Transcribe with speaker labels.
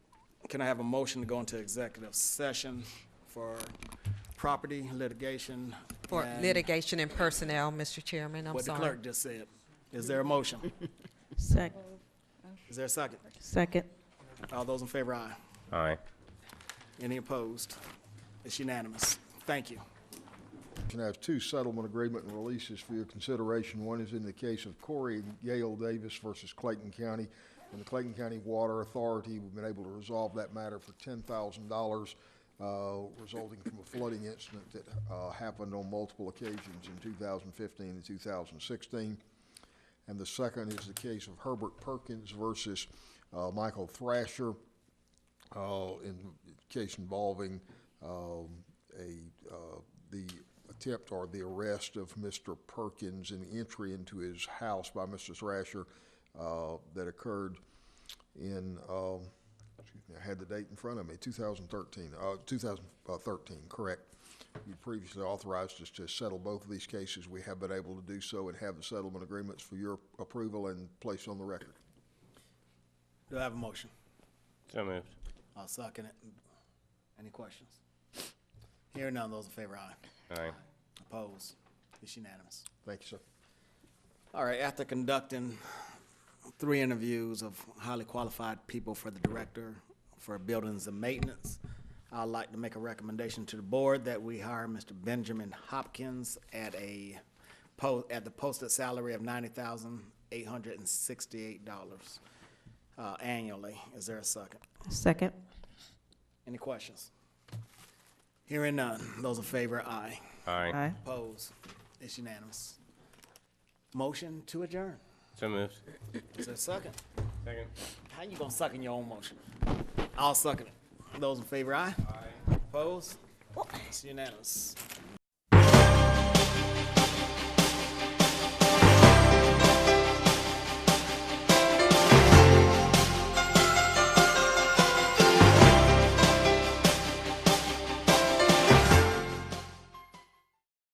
Speaker 1: Can I have a motion to go into executive session for property litigation?
Speaker 2: For
Speaker 1: and
Speaker 2: litigation and personnel, Mr. Chairman, I'm
Speaker 1: What the
Speaker 2: sorry.
Speaker 1: clerk just said. Is there a motion?
Speaker 3: Sec-
Speaker 1: Is there a second?
Speaker 3: Second.
Speaker 1: All those in favor, aye.
Speaker 4: Aye.
Speaker 1: Any opposed? It's unanimous. Thank you.
Speaker 5: And I have two settlement agreement and releases for your consideration. One is in the case of Corey and Gail Davis versus Clayton County. And the Clayton County Water Authority, we've been able to resolve that matter for ten thousand dollars, uh, resulting from a flooding incident that uh, happened on multiple occasions in two thousand fifteen and two thousand sixteen. And the second is the case of Herbert Perkins versus uh, Michael Thrasher uh, in case involving, um, a, uh, the attempt or the arrest of Mr. Perkins and the entry into his house by Mr. Thrasher, uh, that occurred in, um, excuse me, I had the date in front of me, two thousand thirteen, uh, two thousand thirteen, correct. You previously authorized us to settle both of these cases. We have been able to do so and have the settlement agreements for your approval and place on the record.
Speaker 1: Do I have a motion?
Speaker 4: So moved.
Speaker 1: I'll second it. Any questions? Hearing none, those in favor, aye.
Speaker 4: Aye.
Speaker 1: Opposed? It's unanimous.
Speaker 5: Thank you, sir.
Speaker 1: All right, after conducting three interviews of highly qualified people for the director for buildings and maintenance, I'd like to make a recommendation to the board that we hire Mr. Benjamin Hopkins at a po, at the posted salary of ninety thousand eight hundred and sixty-eight dollars, uh, annually. Is there a second?
Speaker 3: Second.
Speaker 1: Any questions? Hearing none. Those in favor, aye.
Speaker 4: Aye.
Speaker 1: Opposed? It's unanimous. Motion to adjourn.
Speaker 4: So moved.
Speaker 1: Is there a second?
Speaker 4: Second.
Speaker 1: How you gonna suck in your own motion? I'll suck in it. Those in favor, aye. Aye. Opposed? It's unanimous.